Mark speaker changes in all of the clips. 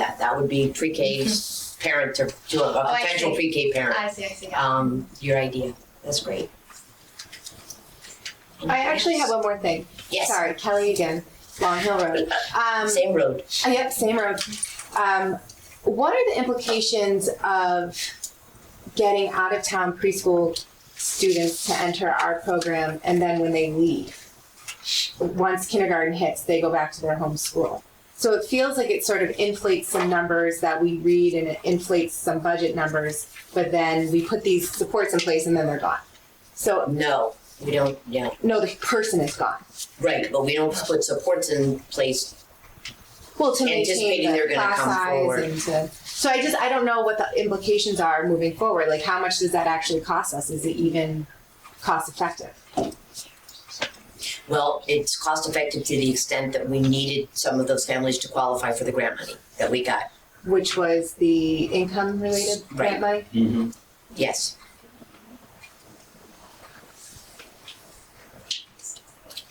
Speaker 1: that would be pre-K's parent to, to a-
Speaker 2: Mm-hmm. Oh,
Speaker 1: a
Speaker 2: I
Speaker 1: potential
Speaker 2: see.
Speaker 1: pre-K parent,
Speaker 2: I see, I see.
Speaker 1: um, your idea, that's great.
Speaker 2: I actually have one more thing.
Speaker 1: Yes,
Speaker 2: Sorry, Kelly again, Long Hill Road. Um,
Speaker 1: same road,
Speaker 2: Uh, Yep, same road. Um, what are the implications of getting out of town preschool students to enter our program and then when they leave? Once kindergarten hits, they go back to their home school. So it feels like it sort of inflates some numbers that we read and it inflates some budget numbers, but then we put these supports in place and then they're gone. So,
Speaker 1: no, we don't, yeah,
Speaker 2: no, the person is gone.
Speaker 1: right, but we don't put supports in place
Speaker 2: Well, to maintain
Speaker 1: Anticipating
Speaker 2: the
Speaker 1: they're gonna
Speaker 2: class
Speaker 1: come
Speaker 2: size
Speaker 1: forward.
Speaker 2: and to, so I just, I don't know what the implications are moving forward, like how much does that actually cost us? Is it even cost effective?
Speaker 1: Well, it's cost effective to the extent that we needed some of those families to qualify for the grant money that we got.
Speaker 2: Which was the income related grant money?
Speaker 3: Mm-hmm.
Speaker 1: Yes.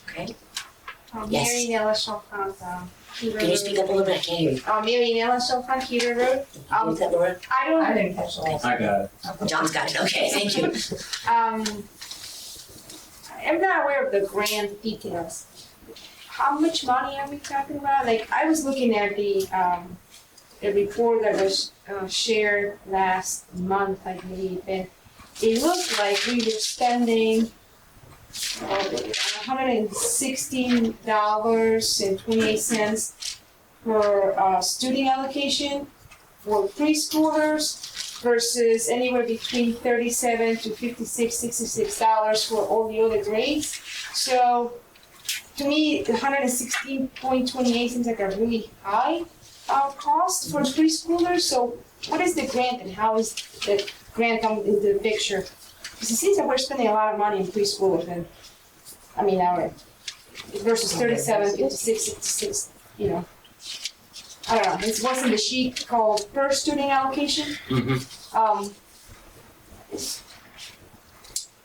Speaker 1: Okay,
Speaker 4: Um,
Speaker 1: Yes.
Speaker 4: Mary Nellis from um, Peter
Speaker 1: can you speak up a little bit? I can't hear you.
Speaker 4: Uh, Mary Nellis from Peter Road.
Speaker 2: Um,
Speaker 1: Can you do that, Laura?
Speaker 4: um, I don't. I didn't catch
Speaker 3: I got it.
Speaker 1: John's got it. Okay, thank you.
Speaker 4: Um, I'm not aware of the grand details. How much money are we talking about? Like, I was looking at the, um, the report that was uh, shared last month, I believe, and it looked like we were spending hundred and sixteen dollars and twenty-eight cents for, uh, student allocation for preschoolers, versus anywhere between thirty-seven to fifty-six, sixty-six dollars for all the other grades. So to me, the hundred and sixteen point twenty-eight seems like a really high uh, cost for preschoolers. So what is the grant and how is the grant come into the picture? Because it seems that we're spending a lot of money in preschoolers and, I mean, our versus thirty-seven, fifty-six, sixty-six, you know. I don't know, it's what's in the sheet called per student allocation.
Speaker 3: Mm-hmm.
Speaker 4: Um,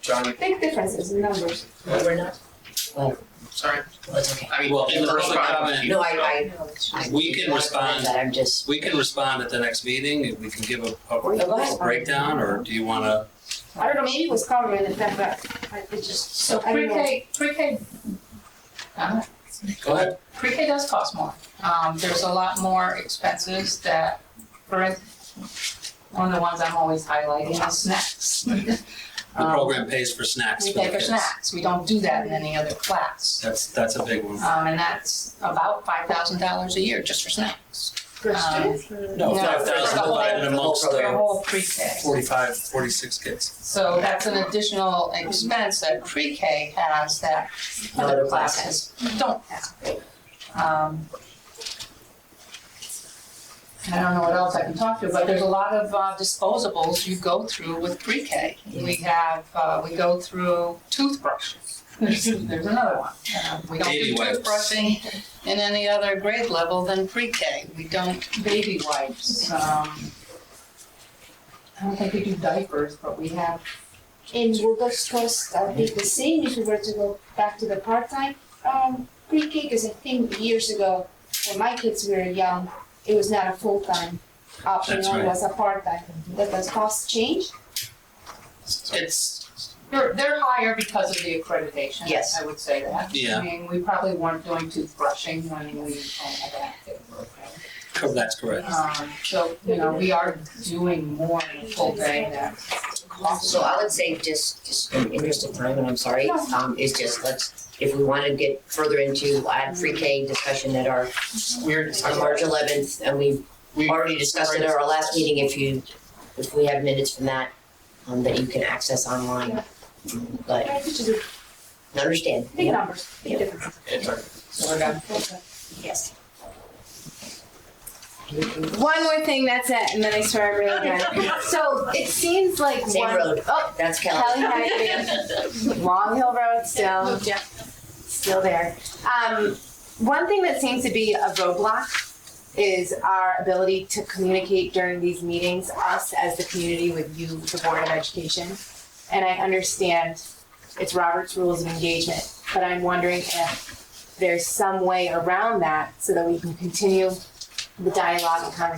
Speaker 5: John,
Speaker 4: big differences in numbers.
Speaker 1: No, We're not,
Speaker 5: sorry.
Speaker 1: Oh, well, it's okay.
Speaker 5: I mean,
Speaker 3: Well, in the
Speaker 5: first
Speaker 3: public
Speaker 5: comment,
Speaker 3: comment-
Speaker 5: you-
Speaker 1: No, I, I, I.
Speaker 3: We can respond.
Speaker 1: That I'm just,
Speaker 3: We can respond at the next meeting, and we can give a,
Speaker 1: Okay.
Speaker 3: a breakdown, or do you wanna?
Speaker 4: I don't know, maybe it was covered in the fact that I it just,
Speaker 6: So
Speaker 4: I don't know.
Speaker 6: pre-K, pre-K, uh,
Speaker 3: Go ahead.
Speaker 6: pre-K does cost more. Um, there's a lot more expenses that, for, in- one of the ones I'm always highlighting is snacks.
Speaker 3: The program pays for snacks
Speaker 6: Um, We
Speaker 3: for the
Speaker 6: pay for
Speaker 3: kids.
Speaker 6: snacks, we don't do that in any other class.
Speaker 3: That's, that's a big one.
Speaker 6: Um, and that's about five thousand dollars a year just for snacks.
Speaker 4: for
Speaker 6: Um,
Speaker 4: students, or-
Speaker 3: No,
Speaker 6: No,
Speaker 3: five
Speaker 6: for
Speaker 3: thousand
Speaker 6: the
Speaker 3: divided
Speaker 1: whole-
Speaker 3: amongst
Speaker 1: the whole
Speaker 6: For a
Speaker 3: the
Speaker 1: program.
Speaker 6: whole pre-K.
Speaker 3: forty-five, forty-six kids.
Speaker 6: So that's an additional expense that pre-K has that
Speaker 1: No
Speaker 6: other
Speaker 1: other classes.
Speaker 6: classes don't have. Um, I don't know what else I can talk to, but there's a lot of uh, disposables you go through with pre-K. We have, uh, we go through toothbrushes. There's, there's another one. Uh, We don't
Speaker 3: Baby
Speaker 6: do
Speaker 3: wipes.
Speaker 6: toothbrushing in any other grade level than pre-K. We don't baby wipes. um, I don't think we do diapers, but we have
Speaker 4: And would those costs uh, be the same if we were to go back to the part-time, um, pre-K? Because I think years ago, when my kids were young, it was not a full-time option,
Speaker 3: That's
Speaker 4: it
Speaker 3: right.
Speaker 4: was a part-time. Does the cost change?
Speaker 3: It's,
Speaker 6: They're, they're higher because of the accreditation.
Speaker 1: Yes.
Speaker 6: I would say that.
Speaker 3: Yeah.
Speaker 6: I mean, we probably weren't doing toothbrushing when we had that program.
Speaker 3: cor- that's correct.
Speaker 6: Um, so, you know, we are doing more in a full day that costs.
Speaker 1: So I would say just, just in the interest of time, and I'm sorry, um, is just let's, if we wanna get further into our pre-K discussion at our,
Speaker 5: We're,
Speaker 1: on March eleventh, and we
Speaker 5: we,
Speaker 1: already discussed it at our last meeting, if you, if we have minutes from that, um, that you can access online. But,
Speaker 4: I think it's just
Speaker 1: understand,
Speaker 4: big numbers, big differences.
Speaker 5: it's our
Speaker 6: So we're done.
Speaker 1: yes.
Speaker 2: One more thing, that's it, and then I swear I'm really done. So it seems like
Speaker 1: Same
Speaker 2: one-
Speaker 1: road.
Speaker 2: Oh,
Speaker 1: That's Kelly.
Speaker 2: Kelly Hackett, Long Hill Road still. still there. Um, one thing that seems to be a roadblock is our ability to communicate during these meetings, us as the community with you, the Board of Education. And I understand it's Robert's Rules of Engagement, but I'm wondering if there's some way around that so that we can continue the dialogue and conversation